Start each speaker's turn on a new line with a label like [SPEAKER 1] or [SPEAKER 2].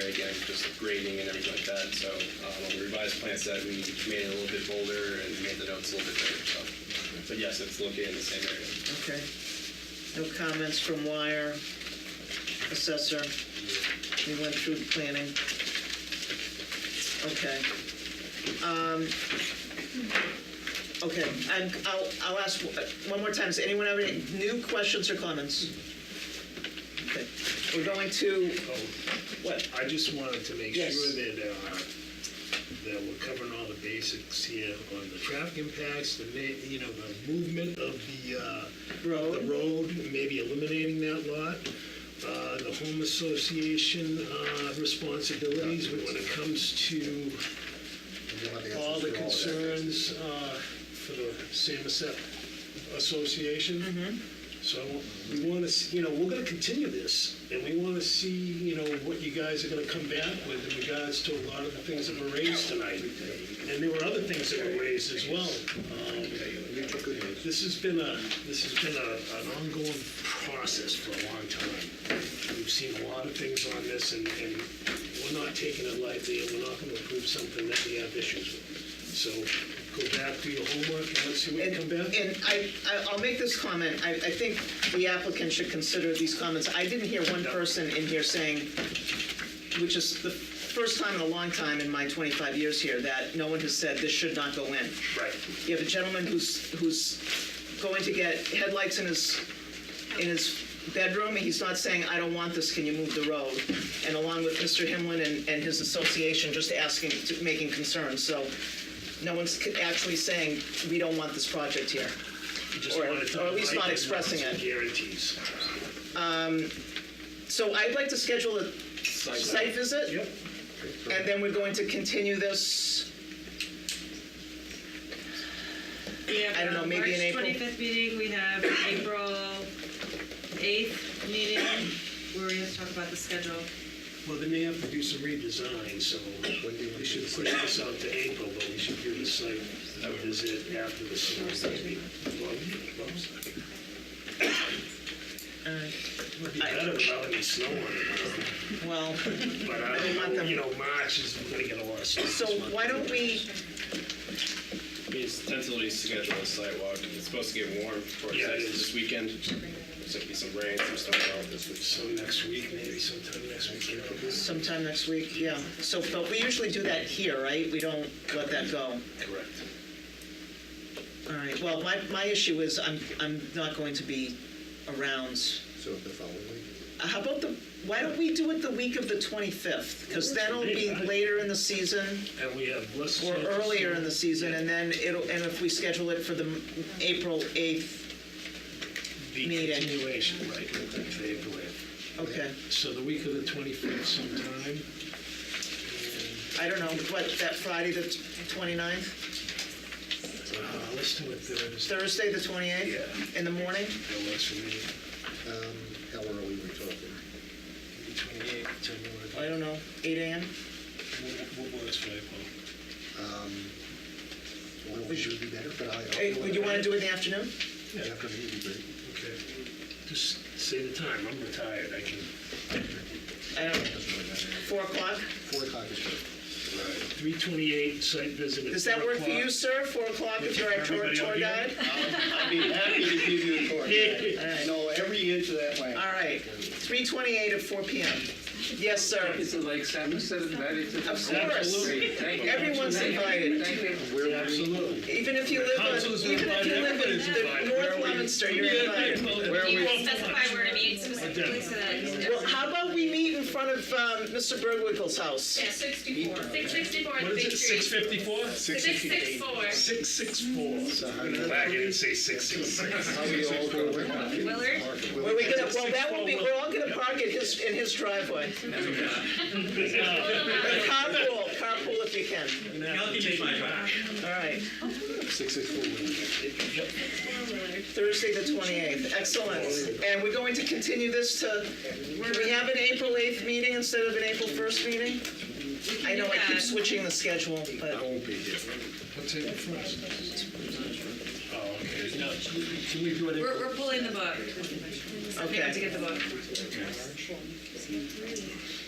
[SPEAKER 1] just the grading and everything like that. So um, on the revised plan set, we made it a little bit bolder and made the notes a little bit bigger, so. But yes, it's located in the same area.
[SPEAKER 2] Okay. No comments from Wire, Assessor. We went through the planning. Okay. Um, Okay, and I'll, I'll ask one more time, does anyone have any new questions or comments? Okay. We're going to, what?
[SPEAKER 3] I just wanted to make sure
[SPEAKER 2] Yes.
[SPEAKER 3] that, uh, that we're covering all the basics here on the traffic impacts, the, ma- you know, the movement of the, uh, the
[SPEAKER 2] Road?
[SPEAKER 3] road, maybe eliminating that lot, uh, the home association uh, responsibilities when it comes to all the concerns uh, for the Samoset
[SPEAKER 2] Mm-hmm.
[SPEAKER 3] Association. So we want to, you know, we're going to continue this, and we want to see, you know, what you guys are going to come back with in regards to a lot of the things that were raised tonight. And there were other things that were raised as well. Um, This has been a, this has been a, an ongoing process for a long time. We've seen a lot of things on this, and, and we're not taking it lightly, and we're not gonna approve something that we have issues with. So go back, do your homework, and let's see what
[SPEAKER 2] And
[SPEAKER 3] you come back. with.
[SPEAKER 2] and I, I- I'll make this comment, I, I think the applicant should consider these comments. I didn't hear one person in here saying, which is the first time in a long time in my 25 years here, that no one has said this should not go in.
[SPEAKER 3] Right.
[SPEAKER 2] You have a gentleman who's, who's going to get headlights in his, in his bedroom, he's not saying, I don't want this, can you move the road? And along with Mr. Himlin and, and his association, just asking, making concerns, so no one's actually saying, we don't want this project here.
[SPEAKER 3] You just
[SPEAKER 2] Or-
[SPEAKER 3] wanted to
[SPEAKER 2] or at least not
[SPEAKER 3] provide
[SPEAKER 2] expressing
[SPEAKER 3] some
[SPEAKER 2] it.
[SPEAKER 3] Guarantees.
[SPEAKER 2] So I'd like to schedule a site visit.
[SPEAKER 3] Yep.
[SPEAKER 2] And then we're going to continue this,
[SPEAKER 4] I
[SPEAKER 2] don't know, maybe in April?
[SPEAKER 4] March 25th meeting, we have April 8th meeting, where we have to talk about the schedule.
[SPEAKER 3] Well, they may have to do some redesign, so we should push this out to April, but we should do the site visit after the summer. maybe. Well,
[SPEAKER 2] Uh,
[SPEAKER 3] It'd be better without any snow on it. huh?
[SPEAKER 2] well,
[SPEAKER 3] But I don't know, you know, March is, we're gonna get a lot of snow.
[SPEAKER 2] so why don't we,
[SPEAKER 1] It's tentatively scheduled a sidewalk. It's supposed to get warm for
[SPEAKER 3] Yeah, it
[SPEAKER 1] this
[SPEAKER 3] is.
[SPEAKER 1] weekend. Looks like be some rain, some stuff out this week.
[SPEAKER 3] So next week, maybe sometime next week, you know?
[SPEAKER 2] sometime next week, yeah. So, but we usually do that here, right? We don't let that go.
[SPEAKER 3] Correct.
[SPEAKER 2] All right, well, my, my issue is I'm, I'm not going to be around.
[SPEAKER 5] So the following week?
[SPEAKER 2] Uh, How about the, why don't we do it the week of the 25th? Because then it'll be later in the season
[SPEAKER 3] And we have less.
[SPEAKER 2] or
[SPEAKER 3] chances
[SPEAKER 2] earlier
[SPEAKER 3] to-
[SPEAKER 2] in the season, and then it'll, and if we schedule it for the m- April 8th,
[SPEAKER 3] The
[SPEAKER 2] meeting.
[SPEAKER 3] continuation, right, that they have left.
[SPEAKER 2] okay.
[SPEAKER 3] So the week of the twenty-fifth sometime.
[SPEAKER 2] I don't know, what, that Friday, the 29th?
[SPEAKER 3] Uh, let's do it Thursday.
[SPEAKER 2] Thursday, the 28th?
[SPEAKER 3] Yeah.
[SPEAKER 2] In the morning?
[SPEAKER 3] That works for me.
[SPEAKER 5] Um, how early we're talking?
[SPEAKER 3] Twenty-eight, tell me
[SPEAKER 2] I
[SPEAKER 3] what,
[SPEAKER 2] don't know, 8 AM?
[SPEAKER 3] what what works for April.
[SPEAKER 5] Um, well, we should be better, but I. I'll-
[SPEAKER 2] Hey, would you want to do it in the afternoon?
[SPEAKER 5] After me, it'd be great.
[SPEAKER 3] Okay. Just say the time, I'm retired, I can.
[SPEAKER 2] I don't, know,
[SPEAKER 5] Doesn't really matter.
[SPEAKER 2] 4 o'clock?
[SPEAKER 5] Four o'clock is good.
[SPEAKER 3] Three twenty-eight, site visit at
[SPEAKER 2] Does that
[SPEAKER 3] four
[SPEAKER 2] work for you,
[SPEAKER 3] o'clock.
[SPEAKER 2] sir? 4 o'clock if you're our tour
[SPEAKER 3] Everybody up
[SPEAKER 2] tour guide?
[SPEAKER 3] here?
[SPEAKER 5] I'd be happy to give you a tour.
[SPEAKER 2] I
[SPEAKER 5] know every inch of that land.
[SPEAKER 2] All right, 3:28 at 4 PM. Yes, sir.
[SPEAKER 6] It's like Sam said, invited to the.
[SPEAKER 2] Of course. Everyone's invited.
[SPEAKER 6] Thank you.
[SPEAKER 3] Absolutely.
[SPEAKER 2] Even if you live on,
[SPEAKER 3] Council's
[SPEAKER 2] even if
[SPEAKER 3] invited,
[SPEAKER 2] you live in
[SPEAKER 3] everybody's
[SPEAKER 2] the
[SPEAKER 3] invited.
[SPEAKER 2] North Leominster, you're invited.
[SPEAKER 6] Where
[SPEAKER 4] You
[SPEAKER 6] we-
[SPEAKER 4] guys specify where to meet specifically so that it's-
[SPEAKER 2] Well, how about we meet in front of um, Mr. Bergwinkle's house?
[SPEAKER 7] Yeah, 64. 664
[SPEAKER 3] What
[SPEAKER 7] the big
[SPEAKER 3] is it, six
[SPEAKER 7] tree.
[SPEAKER 3] fifty-four?
[SPEAKER 7] 664.
[SPEAKER 3] Six, six, four. I'm gonna back it and say six, six, six.
[SPEAKER 5] How we all go around.
[SPEAKER 4] Willard?
[SPEAKER 2] Where we gonna, well, that will be, we're all gonna park at his, in his driveway. Carpool, carpool if you can. All right,
[SPEAKER 5] Six, six, four.
[SPEAKER 2] Thursday the 28th, excellent. And we're going to continue this to, do we have an April 8th meeting instead of an April 1st meeting? I know I keep switching the schedule, but,
[SPEAKER 5] won't be here.
[SPEAKER 3] What's it for us? Oh, okay. No, Can we do it?
[SPEAKER 4] We're, we're pulling the book. I think I have to
[SPEAKER 2] okay.
[SPEAKER 4] get the book.